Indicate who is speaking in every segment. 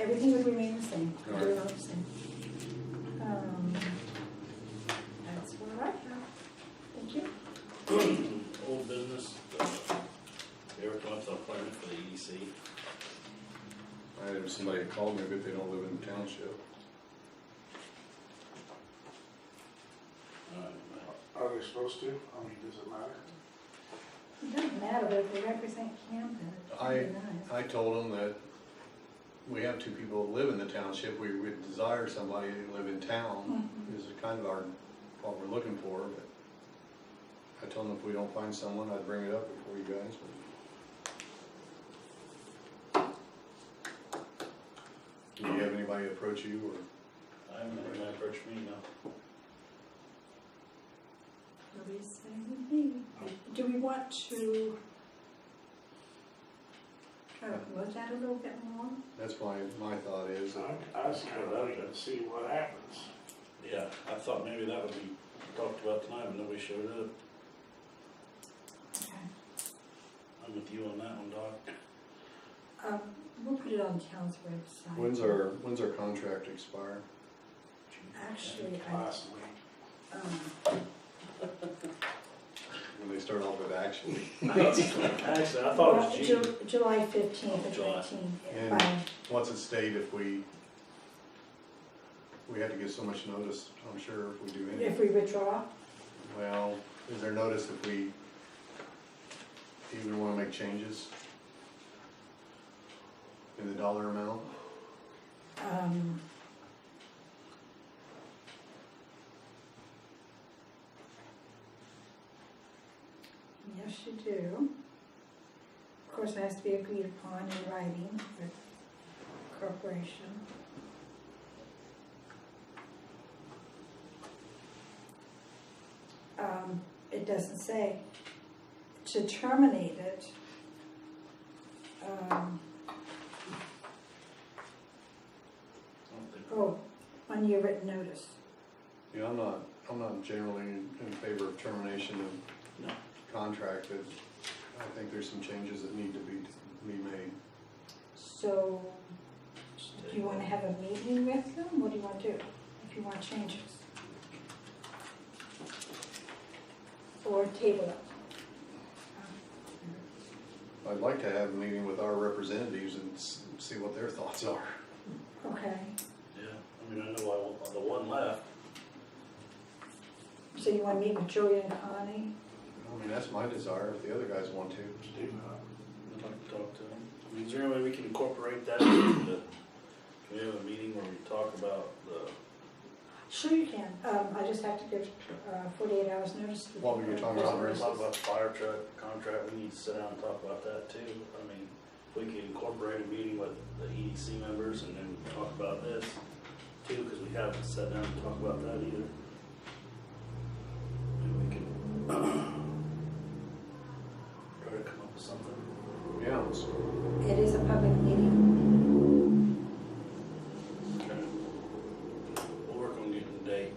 Speaker 1: everything would remain the same.
Speaker 2: All right.
Speaker 1: They're all the same. Um, That's where I have. Thank you.
Speaker 3: Old business, uh, Eric wants an appointment for the E EDC.
Speaker 2: I have somebody that called me, but they don't live in the township.
Speaker 4: Are they supposed to? I mean, does it matter?
Speaker 1: It doesn't matter, but if they represent Camden, it would be
Speaker 2: I-
Speaker 1: nice.
Speaker 2: I told them that we have two people that live in the township, we would desire somebody to live in town, is kind of our, what we're looking for, but I told them if we don't find someone, I'd bring it up before you guys, but. Do you have anybody approach you, or
Speaker 3: I'm in my first meeting now.
Speaker 1: Nobody's saying anything. Do we want to kind of look at it a little bit more?
Speaker 2: that's my, my thought is, that
Speaker 4: I, I was kind of looking to see what happens.
Speaker 3: Yeah, I thought maybe that would be talked about tonight, but nobody showed up.
Speaker 1: Okay.
Speaker 3: I'm with you on that one, Doc.
Speaker 1: Um, We'll put it on town's website.
Speaker 2: when's our, when's our contract expire?
Speaker 1: Actually, I,
Speaker 4: Last week,
Speaker 1: um,
Speaker 2: When they start off with action,
Speaker 3: Actually, I thought it was June.
Speaker 1: Ju- July fifteenth or
Speaker 3: July.
Speaker 2: Yeah.
Speaker 1: fifteenth.
Speaker 2: what's at stake if we, we had to give so much notice, I'm sure, if we do anything.
Speaker 1: If we withdraw,
Speaker 2: Well, is there notice if we even wanna make changes? In the dollar amount?
Speaker 1: um, yes, you do. Of course, it has to be agreed upon in writing with corporation. Um, it doesn't say to terminate it. Um,
Speaker 3: I don't think-
Speaker 1: Oh, on your written notice.
Speaker 2: You know, I'm not, I'm not generally in in favor of termination of
Speaker 3: No.
Speaker 2: contract, but I think there's some changes that need to be, be made.
Speaker 1: So, do you wanna have a meeting with them? What do you wanna do? If you want changes? Or table it?
Speaker 2: I'd like to have a meeting with our representatives and s- see what their thoughts are.
Speaker 1: Okay,
Speaker 3: Yeah, I mean, I know I, want- the one left,
Speaker 1: so you wanna meet with Julia and Connie?
Speaker 2: I mean, that's my desire, if the other guys want to.
Speaker 4: to do that.
Speaker 3: I'd like to talk to him. I mean, is there any way we can incorporate that into, can we have a meeting where we talk about the,
Speaker 1: Sure you can. Um, I just have to give, uh, forty-eight hours notice. to-
Speaker 2: What were you talking about,
Speaker 3: We're
Speaker 2: Rick?
Speaker 3: talking about the fire truck contract, we need to sit down and talk about that too. I mean, if we could incorporate a meeting with the EDC members and then talk about this too, because we haven't sat down and talked about that either. And we can try to come up with something.
Speaker 2: Yeah, let's-
Speaker 1: It is a public meeting.
Speaker 3: Okay. We'll work on getting the date.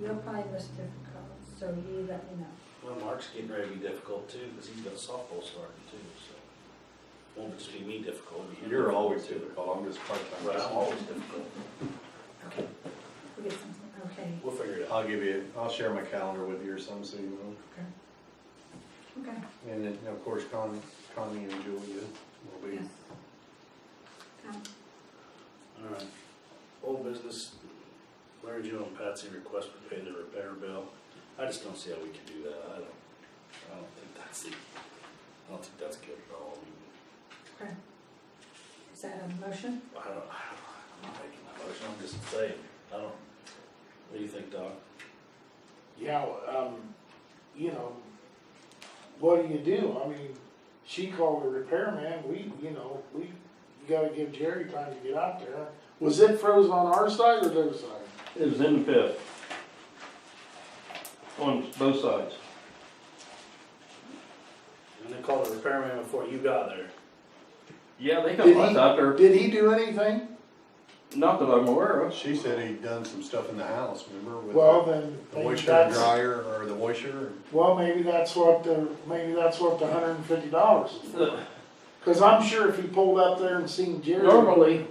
Speaker 1: You'll find this difficult, so you let me know.
Speaker 3: Well, Mark's getting ready to be difficult too, because he's got softball starting too, so. Won't just be me difficult. it'll be him
Speaker 2: You're
Speaker 3: difficult,
Speaker 2: always
Speaker 3: too.
Speaker 2: difficult, I'm just part-time.
Speaker 3: Right, I'm always difficult.
Speaker 1: Okay, we'll get something, okay.
Speaker 3: We'll figure it out.
Speaker 2: I'll give you, I'll share my calendar with you or something, so you know.
Speaker 1: Okay.
Speaker 2: And then, of course, Con- Connie and Julia will be,
Speaker 1: Yes. Um,
Speaker 3: All right. Old business, Larry Joe and Patsy request to pay their repair bill. I just don't see how we can do that. I don't, I don't think that's the, I don't think that's good at all. I mean,
Speaker 1: Okay. Is that a motion?
Speaker 3: I don't, I'm not making that motion. I'm just saying, I don't, what do you think, Doc?
Speaker 4: Yeah, um, you know, what do you do? I mean, she called the repairman, we, you know, we, you gotta give Jerry time to get out there. Was it froze on our side or their side?
Speaker 5: It was in the pit. On both sides.
Speaker 3: And they called the repairman before you got there.
Speaker 5: Yeah, they
Speaker 4: Did
Speaker 5: got
Speaker 4: he-
Speaker 5: lights out there,
Speaker 4: Did he do anything?
Speaker 5: not that I'm aware of.
Speaker 2: she said he'd done some stuff in the house, remember? with
Speaker 4: Well,
Speaker 2: the-
Speaker 4: then,
Speaker 2: The
Speaker 4: maybe
Speaker 2: washer
Speaker 4: that's,
Speaker 2: dryer, or the washer,
Speaker 4: well, maybe that's what the, maybe that's what the hundred and fifty dollars is for. Cause I'm sure if he pulled up there and seen Jerry.
Speaker 5: Normally,